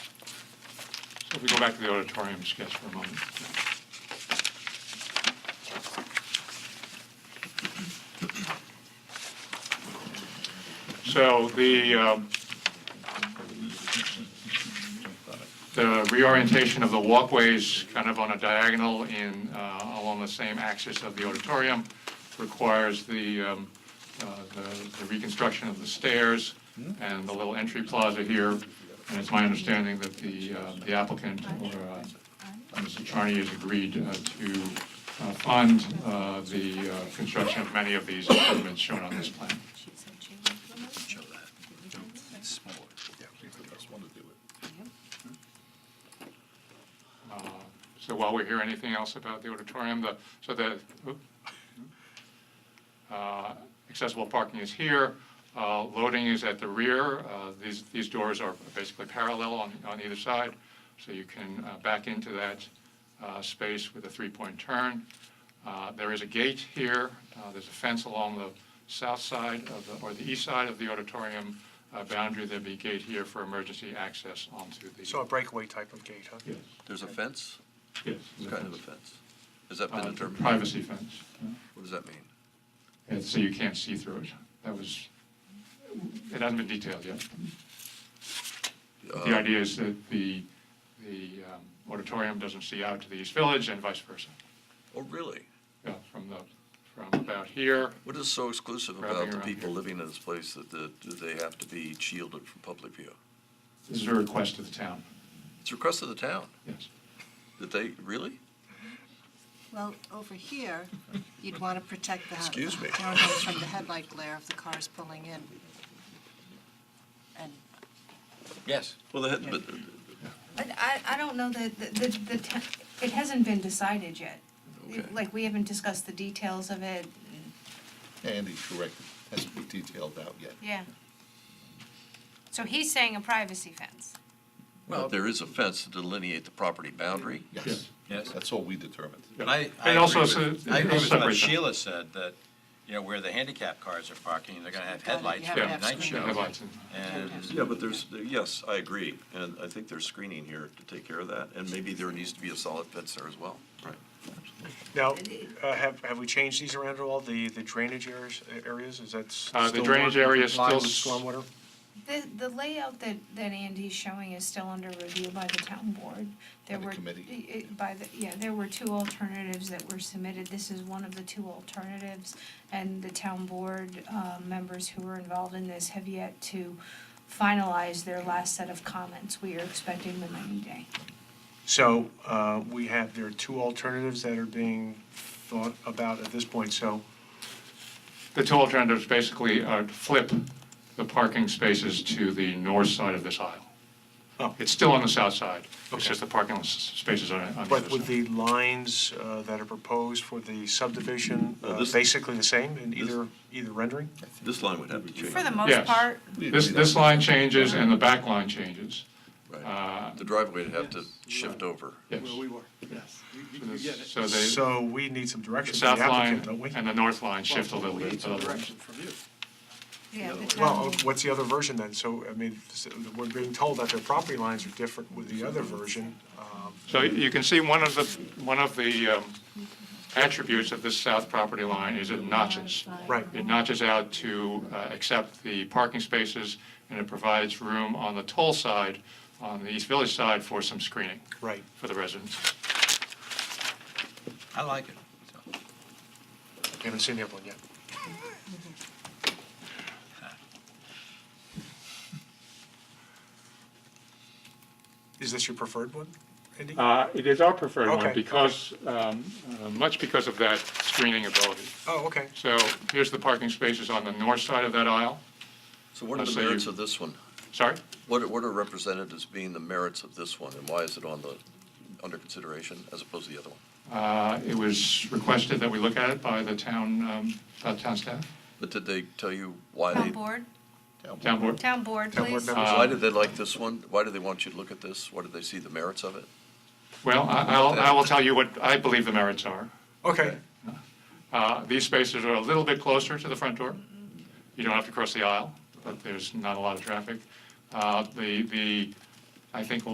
If we go back to the auditorium sketch for a moment. So the, um, the reorientation of the walkways kind of on a diagonal in, uh, along the same axis of the auditorium requires the, um, uh, the the reconstruction of the stairs and the little entry plaza here. And it's my understanding that the uh, the applicant or uh, Mr. Charney has agreed uh, to uh, fund uh, the uh, construction of many of these improvements shown on this plan. So while we hear anything else about the auditorium, the, so the, uh, accessible parking is here, uh, loading is at the rear, uh, these, these doors are basically parallel on, on either side, so you can uh, back into that uh, space with a three-point turn. Uh, There is a gate here, uh, there's a fence along the south side of, the- or the east side of the auditorium uh, boundary, there'd be a gate here for emergency access onto the. So a breakaway type of gate, huh? Yes, There's a fence? yes. What kind of a fence? Has that been Uh, the determined? Privacy fence. What does that mean? And so you can't see through it. That was, it hasn't been detailed yet. But The Uh, idea is that the, the um, auditorium doesn't see out to the East Village and vice versa. Oh, really? Yeah, From the, from about here, What is so exclusive Wrapping about the around people here. living in this place that the- do they have to be shielded from public view? this is a request to the town, It's a request of the town, yes. that they, really? Well, over here, you'd want to protect the Excuse me. townhouse from the headlight glare of the cars pulling in. And Yes. Well, they had, but, I, I- I don't know that, the, the, the town- it hasn't been decided yet. Okay. Like, we haven't discussed the details of it, Andy's correct, it hasn't been detailed out yet. yeah. So he's saying a privacy fence. but there is a fence to delineate the property boundary. Yes, Yes. yes, that's all we determined. Yeah. But And I I- I also said- it I agree was with separate what thing. Sheila said, that, you know, where the handicap cars are parking, they're gonna have headlights Yeah, for the yeah, night screen show. headlights and- And Yeah, but there's, yes, I agree, and I think there's screening here to take care of that, and maybe there needs to be a solid fence there as well. Right. Now, uh, have, have we changed these around at all, the, the drainage areas, areas, is that s- Uh, the still? drainage area is compliant still s- with Stormwater? The, the layout that, that Andy's showing is still under review by the town board. There By the were committee. i- i- By the, yeah, there were two alternatives that were submitted. This is one of the two alternatives. And the town board, uh, members who were involved in this have yet to finalize their last set of comments. We are expecting them any day. So, uh, we have, there are two alternatives that are being thought about at this point, so, The two alternatives basically are to flip the parking spaces to the north side of this aisle. oh, It's still on the south side, it's Okay. just the parking s- spaces on on the other side. but with the lines uh, that are proposed for the subdivision, Well, uh, this- basically the same in either, either rendering? This line would have to change. For the most Yes. part, This, this line changes and the back line changes, Uh, Right. The driveway would have to shift over. yes. Well, we were, yes. You- you- You get it. So they. So we need some The direction from south the line applicant, don't we? and the north line shift a little We need bit. some direction from you. yeah, the Well, uh, town, what's the other version then? So, I mean, s- we're being told that their property lines are different with the other version. Um, So you can see one of the, one of the um, attributes of this south property line is it notches. Right, It notches out to uh, accept the parking spaces, and it provides room on the toll side, on the East Village side, for some screening right. for the residents. I like it. so. We Haven't seen the other one yet. Is this your preferred one, Andy? Oh, Uh, It is our preferred one Okay. because, um, uh, much because of that screening ability. Oh, okay. So here's the parking spaces on the north side of that aisle. So what are So the you- merits of this one? Sorry? What, are- what are represented as being the merits of this one, and why is it on the, under consideration as opposed to the other one? Uh, It was requested that we look at it by the town, um, by the town staff, But did they tell you why town they, board, town board. town board, Town board please. members. why did they like this one? Why do they want you to look at this? Why did they see the merits of it? Well, I- I'll, I will tell you what I believe the merits are. Okay, Uh, These spaces are a little bit closer to the front door. You don't have to cross the aisle, but there's not a lot of traffic. Uh, The, the, I think